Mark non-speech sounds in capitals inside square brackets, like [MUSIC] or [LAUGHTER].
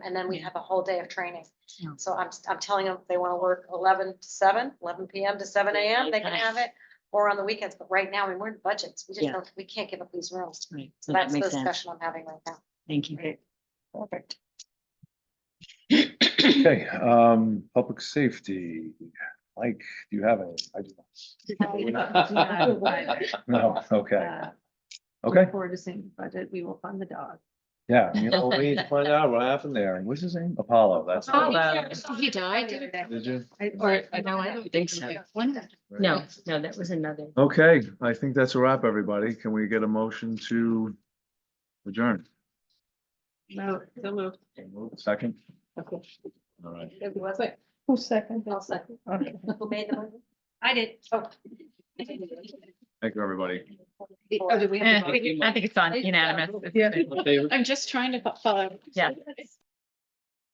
and then we have a whole day of training. Yeah. So I'm, I'm telling them, if they wanna work eleven to 7, 11 PM to seven AM, they can Okay. have it. Or on the weekends, but right now, I mean, we're in budgets, we just Yeah. don't, we can't give up these rooms. Right, So so that that's the makes sense. discussion I'm having right now. Thank you. Great. Perfect. Okay, um, public safety, Mike, do you have any? I [LAUGHS] do not. No, okay, Uh, okay, For the same budget, we will fund the dog. yeah, you know, we need to find out what happened there, what's his name, Apollo, that's. Oh, it. Apollo. He Oh, Did you? Or, no, I don't think so. No, no, that was another. Okay, I think that's a wrap, everybody, can we get a motion to adjourn? No, so moved. Second? Okay. All right. It was like, who second? I'll second. Okay. Who made the movie? I did. Oh, Thank you, everybody. Oh, Eh, did we have? to vote? I think it's on unanimous. Yeah. I'm just trying to follow. Yeah.